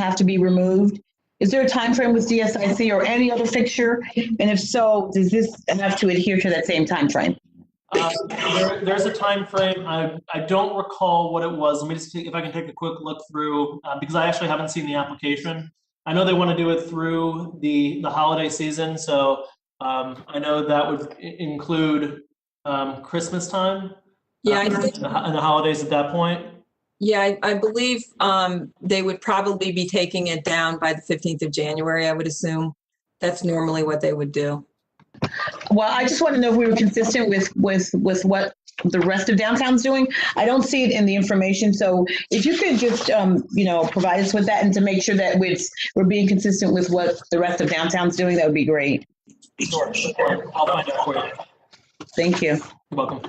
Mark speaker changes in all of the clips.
Speaker 1: have to be removed? Is there a time frame with DSIC or any other fixture? And if so, does this have to adhere to that same time frame?
Speaker 2: Uh, there- There's a time frame. I, I don't recall what it was. Let me just, take if I can take a quick look through, uh, because I actually haven't seen the application. I know they want to do it through the, the holiday season, so um, I know that would i- include um, Christmas time.
Speaker 3: Yeah, I
Speaker 2: um,
Speaker 3: think,
Speaker 2: And the ho- and the holidays at that point.
Speaker 3: yeah, I- I believe um, they would probably be taking it down by the 15th of January, I would assume. That's normally what they would do.
Speaker 1: Well, I just want to know if we were consistent with, with, with what the rest of downtown's doing. I don't see it in the information, so if you could just, um, you know, provide us with that and to make sure that we're, we're being consistent with what the rest of downtown's doing, that would be great.
Speaker 2: Sure, sure. I'll find out for you.
Speaker 1: Thank you.
Speaker 2: You're welcome.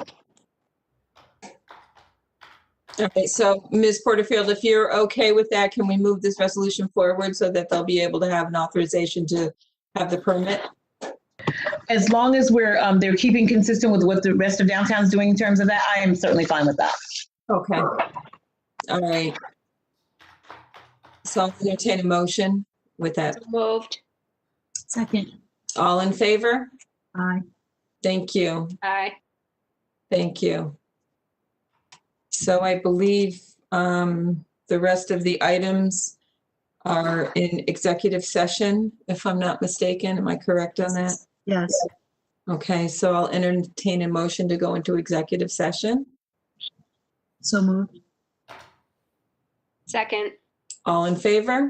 Speaker 3: Okay, so Ms. Porterfield, if you're okay with that, can we move this resolution forward so that they'll be able to have an authorization to have the permit?
Speaker 1: As long as we're, um, they're keeping consistent with what the rest of downtown's doing in terms of that, I am certainly fine with that.
Speaker 3: Okay. All right. So I'll entertain a motion with that.
Speaker 4: So Moved.
Speaker 5: Second,
Speaker 3: All in favor?
Speaker 5: aye.
Speaker 3: Thank you.
Speaker 4: Aye.
Speaker 3: Thank you. So I believe um, the rest of the items are in executive session, if I'm not mistaken. Am I correct on that?
Speaker 5: Yes,
Speaker 3: Okay, so I'll entertain a motion to go into executive session.
Speaker 5: so moved.
Speaker 4: Second.
Speaker 3: All in favor?